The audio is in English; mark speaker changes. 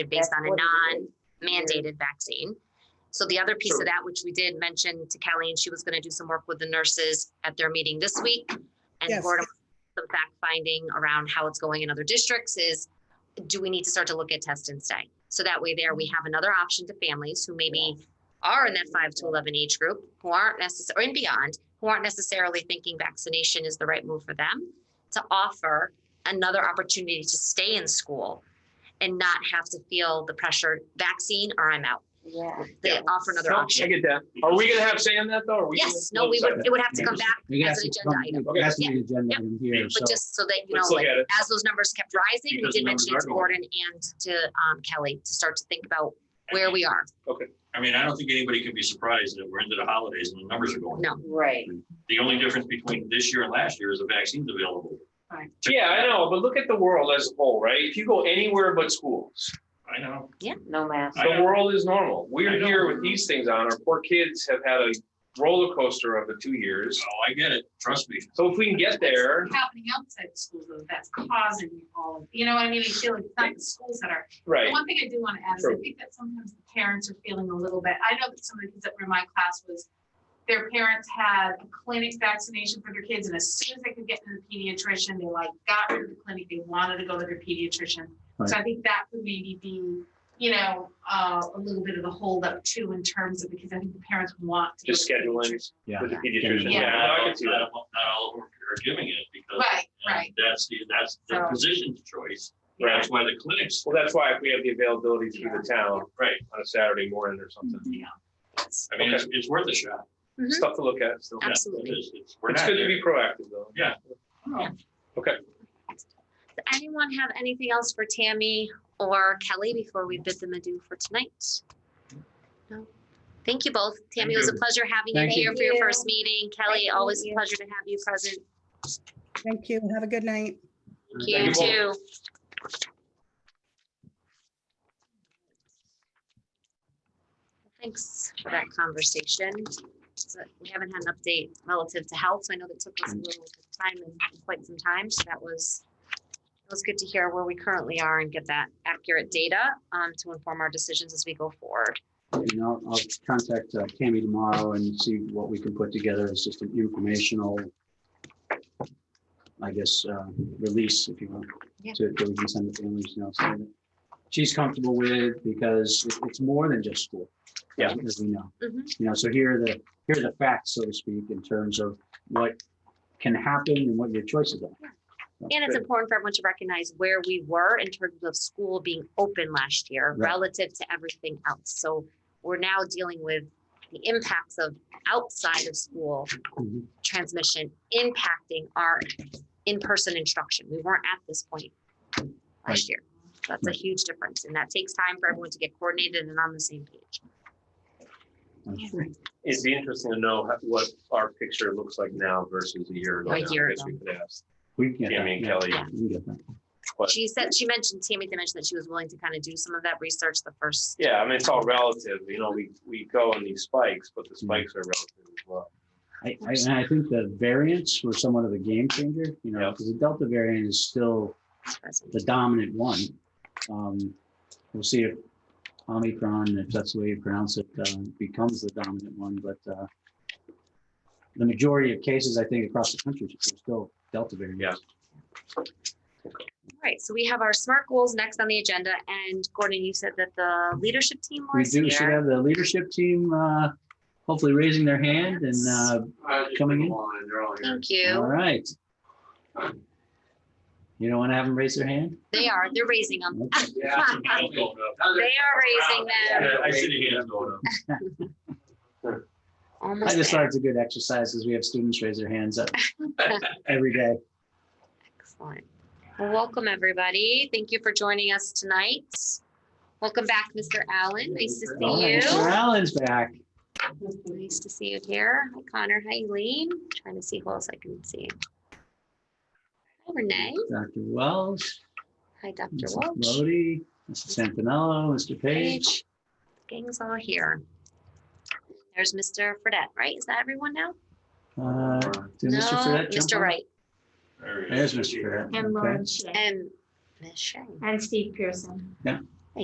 Speaker 1: based on a
Speaker 2: That's what
Speaker 1: non
Speaker 2: it
Speaker 1: mandated vaccine. So the other piece of that, which we did mention to Kelly, and she was going to do some work with the nurses at their meeting this week. And
Speaker 3: Yes.
Speaker 1: board, some fact finding around how it's going in other districts is, do we need to start to look at test and stay? So that way there, we have another option to families wwho maybe are in that five to eleven age group, who aren't necessarily, and beyond, who aren't necessarily thinking vaccination is the right move for them, to offer another opportunity to stay in school and not have to feel the pressure, vaccine or I'm out.
Speaker 2: Yeah.
Speaker 1: They
Speaker 4: Yeah.
Speaker 1: offer another
Speaker 4: No, I
Speaker 1: option.
Speaker 4: get that. Are we gonna have say on that though? or we gonna-
Speaker 1: Yes, no, we would, it would have to come back
Speaker 5: It
Speaker 1: as an
Speaker 5: has to
Speaker 1: agenda item.
Speaker 5: come- it has to be an agenda
Speaker 1: Yep.
Speaker 5: item here, so.
Speaker 1: But just so that, you know,
Speaker 4: Let's look
Speaker 1: like,
Speaker 4: at it.
Speaker 1: as those numbers kept rising, we
Speaker 4: Because
Speaker 1: did
Speaker 4: the
Speaker 1: mention
Speaker 4: numbers
Speaker 1: to
Speaker 4: are going
Speaker 1: Gordon and to um, Kelly to start to think about where we are.
Speaker 6: I mean, I don't think anybody can be surprised that we're into the holidays and the numbers are going.
Speaker 1: No.
Speaker 6: up.
Speaker 2: Right.
Speaker 6: The only difference between this year and last year is the vaccine's available.
Speaker 2: Right.
Speaker 4: Yeah, I know, but look at the world as a whole, right? If you go anywhere but schools,
Speaker 6: I know.
Speaker 2: No mask.
Speaker 6: I
Speaker 4: the
Speaker 6: know.
Speaker 4: world is normal.
Speaker 6: I
Speaker 4: We're
Speaker 6: know.
Speaker 4: here with these things on. Our poor kids have had a roller coaster of the two years.
Speaker 6: Oh, I get it. Trust me.
Speaker 4: So if we can get there,
Speaker 7: happening outside the schools though, that's causing all of, you know what I mean? I feel like it's not the schools that are. The
Speaker 4: right?
Speaker 7: One thing I do want to add is I
Speaker 4: True.
Speaker 7: think that sometimes the parents are feeling a little bit, I know that some of the kids that were in my class was their parents had a clinic vaccination for their kids and as soon as they could get to the pediatrician, they like got rid of the clinic, they wanted to go to their pediatrician. So I think that could maybe be, you know, uh, a little bit of a holdup too in terms of, because I think the parents want. to go
Speaker 4: Just
Speaker 7: to the
Speaker 4: scheduling.
Speaker 7: pediatrician.
Speaker 5: Yeah.
Speaker 4: With the pediatrician.
Speaker 7: Yeah.
Speaker 4: Yeah, no, I can see
Speaker 6: Not
Speaker 4: that.
Speaker 6: all not all of them are giving it because
Speaker 7: Right,
Speaker 6: and
Speaker 7: right.
Speaker 6: that's the, that's the
Speaker 7: So-
Speaker 6: physician's choice.
Speaker 4: Right.
Speaker 6: That's why the clinics.
Speaker 4: Well, that's why if we have the availability through the town
Speaker 6: Right.
Speaker 4: on a Saturday morning or something,
Speaker 7: Yeah.
Speaker 6: I mean, it's, it's worth a shot.
Speaker 1: Mhm.
Speaker 4: stuff to look at still.
Speaker 6: Yeah, it
Speaker 1: Absolutely.
Speaker 6: is. It's- We're
Speaker 4: It's
Speaker 6: not
Speaker 4: good to
Speaker 6: there.
Speaker 4: be proactive though.
Speaker 6: Yeah.
Speaker 4: Okay.
Speaker 1: Does anyone have anything else for Tammy or Kelly before we bid them adieu for tonight? No. Thank you both. Tammy, it was a
Speaker 6: you.
Speaker 1: pleasure having you
Speaker 5: Thank you.
Speaker 1: here for your
Speaker 2: Thank
Speaker 1: first meeting. Kelly,
Speaker 2: Thank
Speaker 1: always a
Speaker 2: you.
Speaker 1: pleasure to have you present.
Speaker 3: Thank you. Have a good night.
Speaker 1: Thank
Speaker 4: Thank
Speaker 1: you
Speaker 4: you both.
Speaker 1: too. Thanks for that conversation. So We haven't had an update relative to health. so I know that took us a little bit of time and quite some time, so that was, it was good to hear where we currently are and get that accurate data um, to inform our decisions as we go forward.
Speaker 5: And I'll, I'll contact uh, Tammy tomorrow and see what we can put together as just an informational, I guess, uh, release, if you will.
Speaker 1: Yeah.
Speaker 5: To, to we can send the families, you know, so that she's comfortable with, because it- it's more than just school.
Speaker 4: Yeah.
Speaker 5: As we know.
Speaker 1: Mhm.
Speaker 5: You know, so here are the, here are the facts, so to speak, in terms of what can happen and what your choices are.
Speaker 1: And it's important for everyone to recognize where we were in terms of school being open last year
Speaker 5: Right.
Speaker 1: relative to everything else. So we're now dealing with the impacts of outside of school
Speaker 5: Mhm.
Speaker 1: transmission impacting our in-person instruction. We weren't at this point last year. That's a
Speaker 5: Right.
Speaker 1: huge difference, and that takes time for everyone to get coordinated and on the same page.
Speaker 4: Mm-hmm. It'd be interesting to know how- what our picture looks like now versus a year ago.
Speaker 1: A
Speaker 4: now. I
Speaker 1: year
Speaker 4: guess
Speaker 1: ago.
Speaker 4: we could ask
Speaker 5: We can get that.
Speaker 4: Tammy and
Speaker 5: yeah,
Speaker 4: Kelly.
Speaker 1: Yeah.
Speaker 5: We can get that.
Speaker 4: But-
Speaker 1: She said, she mentioned, Tammy did mention that she was willing to kind of do some of that research the first
Speaker 4: Yeah, I mean, it's all relative, you know, we, we go on these spikes, but the spikes are relative as well.
Speaker 5: I, I, and I think the variants were somewhat of a game changer, you know,
Speaker 4: Yeah.
Speaker 5: because the Delta variant is still
Speaker 1: present.
Speaker 5: the dominant one. Um, we'll see if Omicron, if that's the way you pronounce it, uh, becomes the dominant one, but, uh, the majority of cases, I think, across the country are still Delta variant.
Speaker 4: Yeah.
Speaker 1: All right, so we have our SMART goals next on the agenda, and Gordon, you said that the leadership team
Speaker 5: We
Speaker 1: was
Speaker 5: do, should
Speaker 1: here.
Speaker 5: have the leadership team, uh, hopefully raising their hand and, uh, Coming in?
Speaker 1: Thank
Speaker 5: all
Speaker 1: you.
Speaker 5: right. You don't want to have them raise their hand?
Speaker 1: They are, they're raising them.
Speaker 5: Okay.
Speaker 1: They
Speaker 6: Yeah.
Speaker 1: are raising them.
Speaker 6: Yeah, I see the hands going up.
Speaker 5: I just
Speaker 1: Almost
Speaker 5: thought
Speaker 1: there.
Speaker 5: it's a good exercise because we have students raise their hands up every day.
Speaker 1: Excellent. Well, welcome, everybody. Thank you for joining us tonight. Welcome back, Mr. Allen. Nice to
Speaker 5: All
Speaker 1: see
Speaker 5: right, Mr.
Speaker 1: you.
Speaker 5: Allen's back.
Speaker 1: Nice to see you here. Hi, Connor. Hi, Eileen. Trying to see who else I can see. Hi, Renee.
Speaker 5: Dr. Wells,
Speaker 1: Hi, Dr.
Speaker 5: Mrs.
Speaker 1: Welch.
Speaker 5: Lodi, Mrs. Santinello, Mr. Page.
Speaker 1: page. Gang's all here. There's Mr. Fredette, right? Is that everyone now?
Speaker 5: Uh, Did
Speaker 1: No,
Speaker 5: Mr. Ferret jump
Speaker 1: Mr.
Speaker 5: on?
Speaker 1: Wright
Speaker 6: There he is.
Speaker 5: There's Mr. Ferret.
Speaker 8: And
Speaker 5: Okay.
Speaker 8: Lauren Shea.
Speaker 1: and Ms. Shea.
Speaker 8: And Steve Pearson.
Speaker 5: Yeah.